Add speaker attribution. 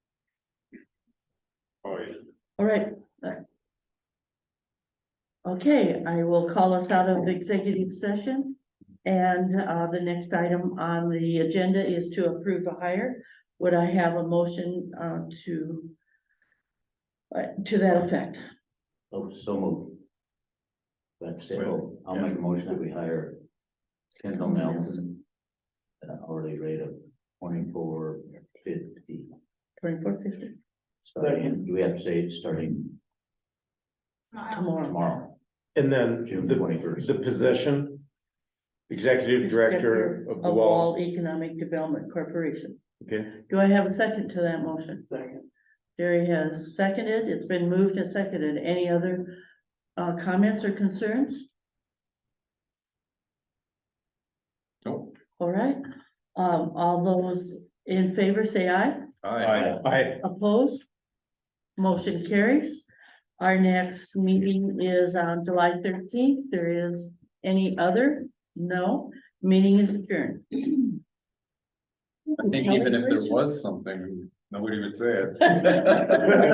Speaker 1: All right. uh, Okay, I will call us out of executive session. And uh, the next item on the agenda is to approve a hire. Would I have a motion uh, to uh, to that effect?
Speaker 2: Oh, so moved. That's it. Oh, I'll make a motion that we hire Kendall Nelson at an hourly rate of twenty-four fifty.
Speaker 1: Twenty-four fifty
Speaker 2: Starting, do we have to say it's starting
Speaker 1: 啊 tomorrow.
Speaker 2: tomorrow,
Speaker 3: And then
Speaker 2: June
Speaker 3: the,
Speaker 2: twenty-first?
Speaker 3: the position, executive director of the
Speaker 1: Of
Speaker 3: wall.
Speaker 1: Wall Economic Development Corporation.
Speaker 3: Okay,
Speaker 1: Do I have a second to that motion? Second. Jerry has seconded. It's been moved and seconded. Any other uh, comments or concerns?
Speaker 4: Nope.
Speaker 1: All right, um, all those in favor say aye.
Speaker 4: Aye.
Speaker 3: I,
Speaker 1: Opposed? Motion carries. Our next meeting is on July thirteenth. There is any other? No, meeting is adjourned.
Speaker 4: I think even if there was something, nobody would say it.